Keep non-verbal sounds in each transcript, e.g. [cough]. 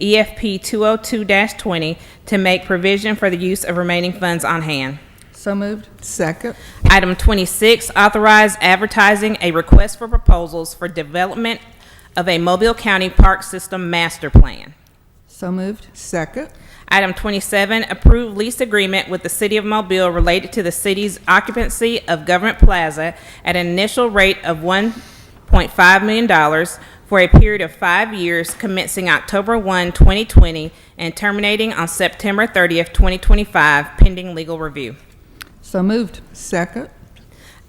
E EFP 202-20 to make provision for the use of remaining funds on hand. So moved. Second, Item 26, authorize advertising a request for proposals for development of a Mobile County Park System Master Plan. So moved. second, Item 27, approve lease agreement with the City of Mobile related to the city's occupancy of Government Plaza at an initial rate of $1.5 million for a period of five years commencing October 1, 2020, and terminating on September 30th, 2025, pending legal review. So moved. second,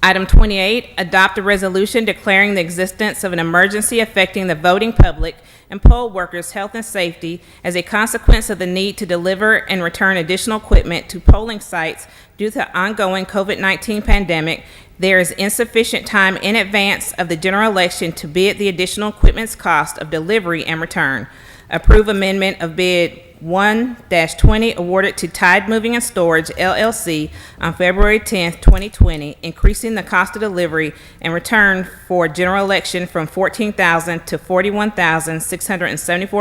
Item 28, adopt a resolution declaring the existence of an emergency affecting the voting public and poll workers' health and safety as a consequence of the need to deliver and return additional equipment to polling sites due to ongoing COVID-19 pandemic. There is insufficient time in advance of the general election to bid the additional equipment's cost of delivery and return. Approve amendment of bid 1-20 awarded to Tide Moving and Storage LLC on February 10th, 2020, increasing the cost of delivery and return for general election from $14,000 to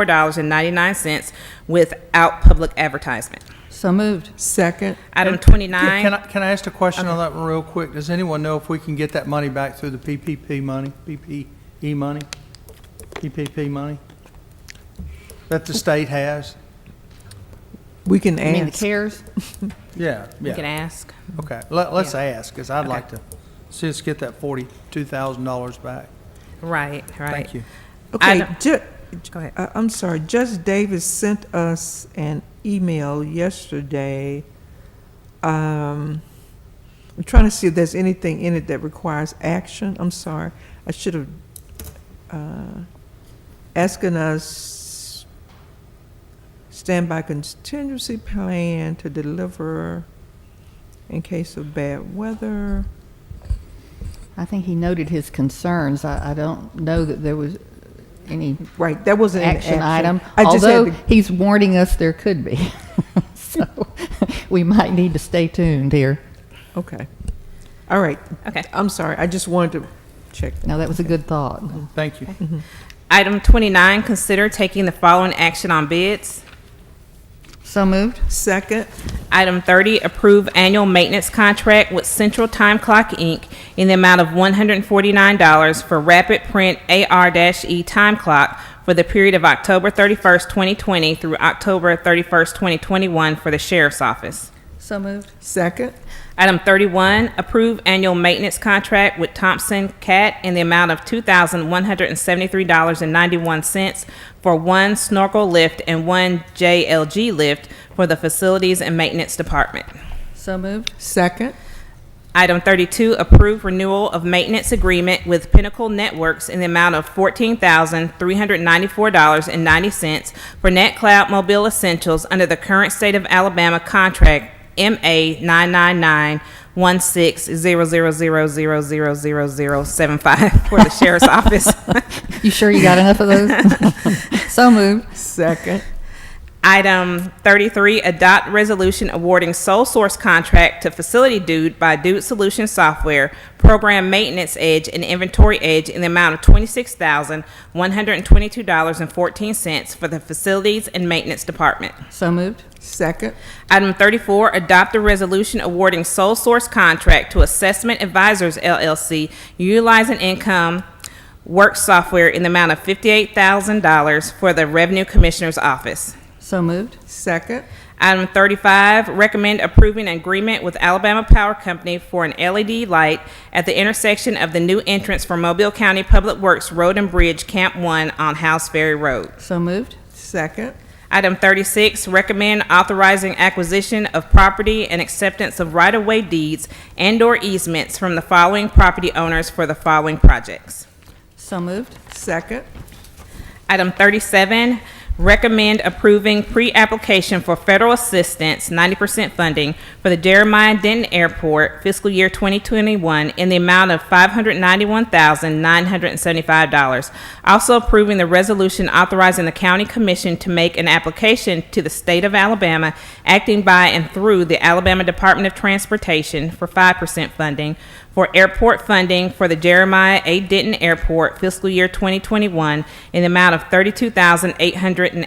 $41,674.99 without public advertisement. So moved. second. Item And- Yeah, 29. Can I, can I ask a question on that one real quick? Does anyone know if we can get that money back through the PPP money, PPE money? PPP money? That the state has? We can I mean, the ask. cares? Yeah, You can yeah. ask. Okay, let, let's Yeah. ask, because I'd like to see us get that forty-two thousand dollars back. Right, right. Thank you. Okay, don't- ju- Go ahead. I- I'm sorry, Judge Davis sent us an email yesterday. Um, I'm trying to see if there's anything in it that requires action. I'm sorry, I should have, uh, asking us standby contingency plan to deliver in case of bad weather. I think he noted his concerns. I, I don't know that there was any Right, that wasn't an action item, I just had although to- he's warning us there could be. [laughs] So we might need to stay tuned here. Okay. All right. Okay. I'm sorry. I just wanted to check. Now, that was a good thought. Thank you. Item 29, consider taking the following action on bids. So moved. Second, Item 30, approve annual maintenance contract with Central Time Clock, Inc. in the amount of $149 for Rapid Print AR-E E Time Clock for the period of October 31st, 2020 through October 31st, 2021 for the Sheriff's Office. So moved. second, Item 31, approve annual maintenance contract with Thompson Cat in the amount of $2,173.91 for one snorkel lift and one JLG lift for the Facilities and Maintenance Department. So moved. second, Item 32, approve renewal of maintenance agreement with Pinnacle Networks in the amount of $14,394.90 for NetCloud Mobile Essentials under the current State of Alabama contract MA 9991600000075 for the Sheriff's [laughs] Office. You sure you got enough of [laughs] those? So moved. second, Item 33, adopt resolution awarding sole source contract to Facility Dude by Dude Solution Software, Program Maintenance Edge and Inventory Edge in the amount of $26,122.14 for the Facilities and Maintenance Department. So moved. second, Item 34, adopt a resolution awarding sole source contract to Assessment Advisors LLC utilizing income work software in the amount of $58,000 for the Revenue Commissioner's Office. So moved. second, Item 35, recommend approving an agreement with Alabama Power Company for an LED light at the intersection of the new entrance for Mobile County Public Works Road and Bridge Camp 1 on House Ferry Road. So moved. second, Item 36, recommend authorizing acquisition of property and acceptance of right-of-way deeds and/or easements from the following property owners for the following projects. So moved. second, Item 37, recommend approving pre-application for federal assistance, 90% funding, for the Jeremiah Denton Airport fiscal year 2021 in the amount of $591,975. Also approving the resolution authorizing the county commission to make an application to the state of Alabama, acting by and through the Alabama Department of Transportation for 5% funding for airport funding for the Jeremiah A. Denton Airport fiscal year 2021 in the amount of $32,880.